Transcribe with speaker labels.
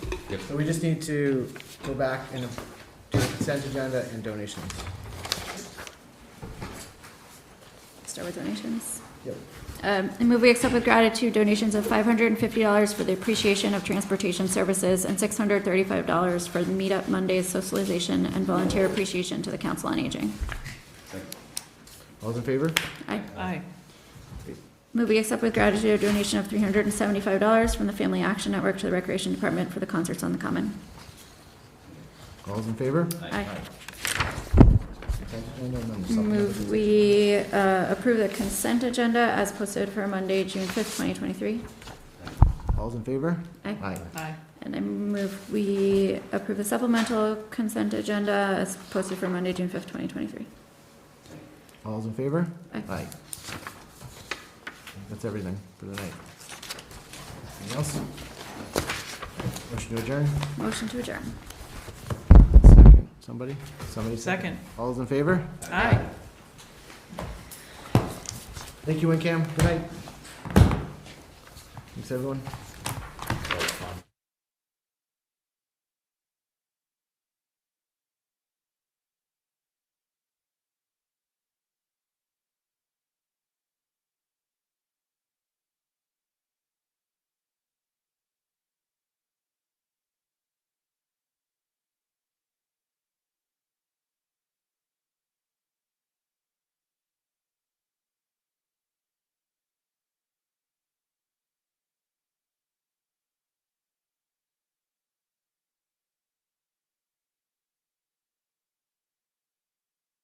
Speaker 1: Yep.
Speaker 2: So we just need to go back and do the consent agenda and donations.
Speaker 3: Start with donations.
Speaker 2: Yep.
Speaker 3: Um, I move we accept with gratitude donations of five hundred and fifty dollars for the appreciation of transportation services and six hundred thirty-five dollars for the Meetup Mondays socialization and volunteer appreciation to the Council on Aging.
Speaker 2: All's in favor?
Speaker 3: I
Speaker 4: Aye.
Speaker 3: move we accept with gratitude a donation of three hundred and seventy-five dollars from the Family Action Network to the Recreation Department for the concerts on the Common.
Speaker 2: All's in favor?
Speaker 3: Aye.
Speaker 2: Consent agenda and then
Speaker 3: Move
Speaker 2: supplemental.
Speaker 3: we uh, approve the consent agenda as posted for Monday, June fifth, twenty twenty-three.
Speaker 2: All's in favor?
Speaker 3: Aye.
Speaker 2: Aye.
Speaker 4: Aye.
Speaker 3: And I move we approve the supplemental consent agenda as posted for Monday, June fifth, twenty twenty-three.
Speaker 2: All's in favor?
Speaker 3: Aye.
Speaker 2: Aye. That's everything for the night. Anything else? Motion to adjourn?
Speaker 3: Motion to adjourn.
Speaker 2: Second. Somebody? Somebody
Speaker 4: Second.
Speaker 2: All's in favor?
Speaker 4: Aye.
Speaker 2: Thank you, WinCam. Good night. Thanks, everyone.